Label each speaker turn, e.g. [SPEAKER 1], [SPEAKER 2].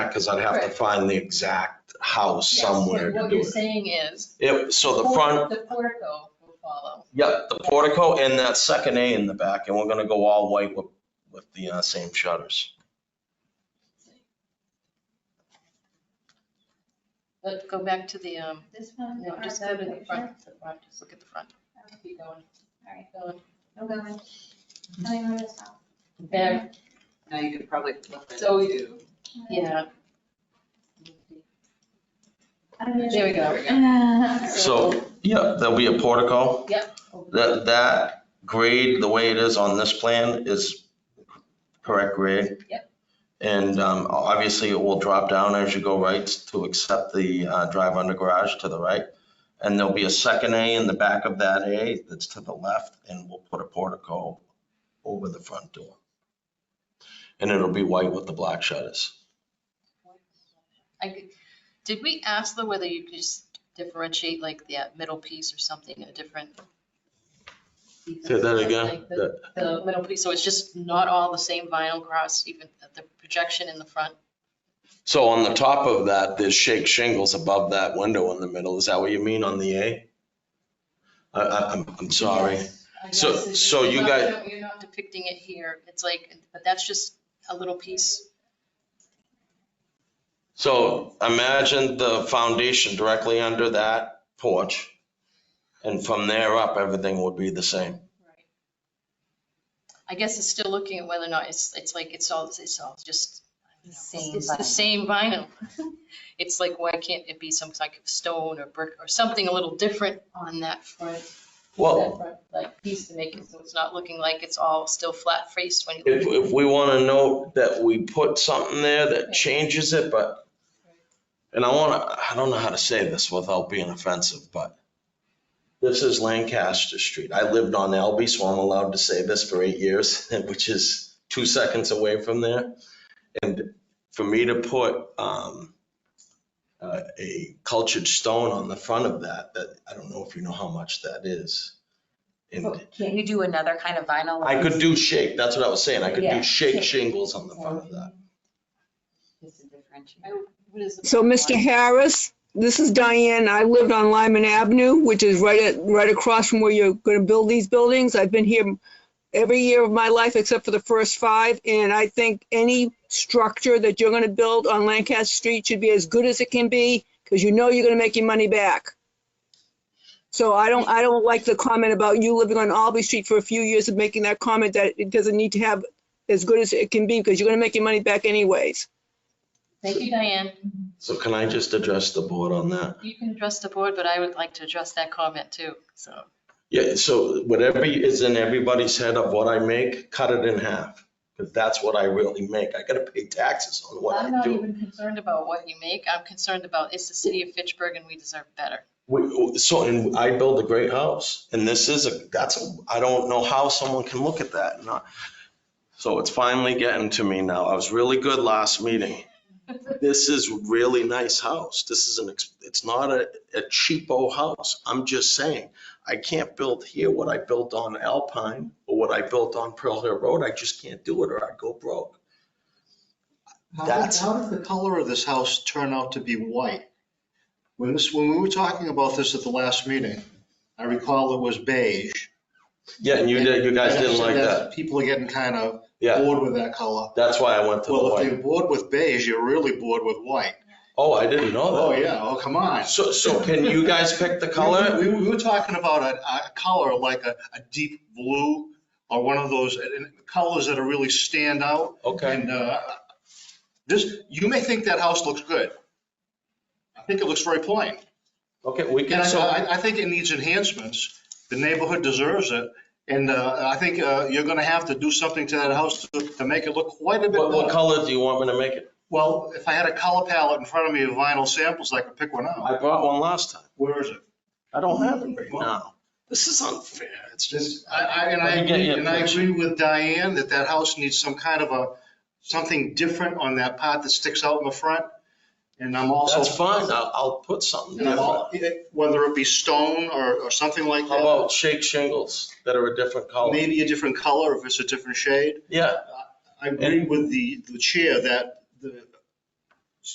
[SPEAKER 1] because I'd have to
[SPEAKER 2] Correct.
[SPEAKER 1] find the exact house
[SPEAKER 2] Yes, so
[SPEAKER 1] somewhere to
[SPEAKER 2] What
[SPEAKER 1] do
[SPEAKER 2] you're
[SPEAKER 1] it.
[SPEAKER 2] saying is.
[SPEAKER 1] It, so the
[SPEAKER 2] por-
[SPEAKER 1] front,
[SPEAKER 2] The portico will follow.
[SPEAKER 1] yep, the portico and that second A in the back, and we're gonna go all white with, with the uh, same shutters.
[SPEAKER 2] Let, go back to the, um,
[SPEAKER 3] This one? Uh,
[SPEAKER 2] no,
[SPEAKER 3] or
[SPEAKER 2] just
[SPEAKER 3] the
[SPEAKER 2] go to the
[SPEAKER 3] picture?
[SPEAKER 2] front, the front, just look at the front. Keep going,
[SPEAKER 3] All right,
[SPEAKER 2] going.
[SPEAKER 3] I'm going. Oh, Tell me where to stop.
[SPEAKER 2] There,
[SPEAKER 4] Now you could probably flip it.
[SPEAKER 2] So-
[SPEAKER 4] to-
[SPEAKER 2] yeah.
[SPEAKER 3] I'm gonna-
[SPEAKER 2] There we go.
[SPEAKER 3] Uh,
[SPEAKER 1] So, yeah, there'll be a portico.
[SPEAKER 2] Yep.
[SPEAKER 1] That, that grade, the way it is on this plan is correct grade.
[SPEAKER 2] Yep.
[SPEAKER 1] And um, obviously, it will drop down as you go right to accept the uh, drive under garage to the right. And there'll be a second A in the back of that A that's to the left, and we'll put a portico over the front door. And it'll be white with the black shutters.
[SPEAKER 2] I could, did we ask though whether you could just differentiate like the uh, middle piece or something, a different?
[SPEAKER 1] Say that again.
[SPEAKER 2] The- The middle piece, so it's just not all the same vinyl cross, even the projection in the front?
[SPEAKER 1] So on the top of that, there's shake shingles above that window in the middle. Is that what you mean on the A? I, I, I'm, I'm sorry.
[SPEAKER 2] Yes, I
[SPEAKER 1] So-
[SPEAKER 2] guess it-
[SPEAKER 1] so you
[SPEAKER 2] you're
[SPEAKER 1] guys-
[SPEAKER 2] not- You're not depicting it here, it's like, but that's just a little piece.
[SPEAKER 1] So imagine the foundation directly under that porch. And from there up, everything would be the same.
[SPEAKER 2] Right. I guess it's still looking at whether or not it's, it's like, it's all, it's all just, I don't know,
[SPEAKER 4] Same
[SPEAKER 2] it's the
[SPEAKER 4] vinyl.
[SPEAKER 2] same vinyl. It's like, why can't it be some type of stone or brick or something a little different on that front, that
[SPEAKER 1] Well,
[SPEAKER 2] front, like piece to make it so it's not looking like it's all still flat faced when you.
[SPEAKER 1] if, if we want to note that we put something there that changes it, but, and I want to, I don't know how to say this without being offensive, but this is Lancaster Street. I lived on Albee, so I'm allowed to say this for eight years, which is two seconds away from there. And for me to put um, uh, a cultured stone on the front of that, that, I don't know if you know how much that is. And
[SPEAKER 4] Can't you do another kind of vinyl?
[SPEAKER 1] I could do shake, that's what I was saying, I could
[SPEAKER 4] Yeah.
[SPEAKER 1] do shake shingles on the front of that.
[SPEAKER 4] Just to differentiate.
[SPEAKER 2] What is the-
[SPEAKER 5] So, Mr. Harris, this is Diane. I lived on Lyman Avenue, which is right at, right across from where you're going to build these buildings. I've been here every year of my life except for the first five, and I think any structure that you're going to build on Lancaster Street should be as good as it can be, because you know you're going to make your money back. So I don't, I don't like the comment about you living on Albee Street for a few years and making that comment that it doesn't need to have as good as it can be, because you're going to make your money back anyways.
[SPEAKER 2] Thank you, Diane.
[SPEAKER 1] So can I just address the board on that?
[SPEAKER 2] You can address the board, but I would like to address that comment too, so.
[SPEAKER 1] Yeah, so whatever is in everybody's head of what I make, cut it in half, because that's what I really make. I gotta pay taxes on what
[SPEAKER 2] I'm
[SPEAKER 1] I
[SPEAKER 2] not
[SPEAKER 1] do.
[SPEAKER 2] even concerned about what you make, I'm concerned about, it's the city of Fitchburg and we deserve better.
[SPEAKER 1] We- So, and I build a great house, and this is a, that's, a I don't know how someone can look at that and not. So it's finally getting to me now. I was really good last meeting. This is really nice house. This is an, ex- it's not a, a cheapo house. I'm just saying, I can't build here what I built on Alpine or what I built on Pearl Hill Road. I just can't do it or I'd go broke.
[SPEAKER 6] How did,
[SPEAKER 1] That's-
[SPEAKER 6] how did the color of this house turn out to be white? When this, when we were talking about this at the last meeting, I recall it was beige.
[SPEAKER 1] Yeah, and you did, you guys
[SPEAKER 6] And I
[SPEAKER 1] didn't
[SPEAKER 6] said
[SPEAKER 1] like that.
[SPEAKER 6] People are getting kind of
[SPEAKER 1] Yeah,
[SPEAKER 6] bored with that color.
[SPEAKER 1] that's why I went to the
[SPEAKER 6] Well, if
[SPEAKER 1] white.
[SPEAKER 6] they're bored with beige, you're really bored with white.
[SPEAKER 1] Oh, I didn't know that.
[SPEAKER 6] Oh, yeah, oh, come on.
[SPEAKER 1] So, so can you guys pick the color?
[SPEAKER 6] We, we were talking about a, a color like a, a deep blue or one of those uh, colors that are really stand out.
[SPEAKER 1] Okay,
[SPEAKER 6] And uh, this, you may think that house looks good. I think it looks very plain.
[SPEAKER 1] okay, we
[SPEAKER 6] And
[SPEAKER 1] can,
[SPEAKER 6] I-
[SPEAKER 1] so,
[SPEAKER 6] I, I think it needs enhancements. The neighborhood deserves it. And uh, I think uh, you're going to have to do something to that house to, to make it look quite a bit
[SPEAKER 1] what, what
[SPEAKER 6] better.
[SPEAKER 1] color do you want me to make it?
[SPEAKER 6] Well, if I had a color palette in front of me of vinyl samples, I could pick one out.
[SPEAKER 1] I brought one last time.
[SPEAKER 6] Where is it?
[SPEAKER 1] I don't have it right now. This is unfair. It's just,
[SPEAKER 6] I, I, and I
[SPEAKER 1] Let me get
[SPEAKER 6] agree,
[SPEAKER 1] you a
[SPEAKER 6] and I
[SPEAKER 1] picture.
[SPEAKER 6] agree with Diane that that house needs some kind of a, something different on that part that sticks out in the front. And I'm also.
[SPEAKER 1] that's fine. I'll, I'll put something
[SPEAKER 6] And I'm
[SPEAKER 1] different.
[SPEAKER 6] all- Whether it be stone or, or something like
[SPEAKER 1] How
[SPEAKER 6] that,
[SPEAKER 1] about shake shingles that are a different color?
[SPEAKER 6] maybe a different color if it's a different shade.
[SPEAKER 1] Yeah,
[SPEAKER 6] I agree with the, the chair that the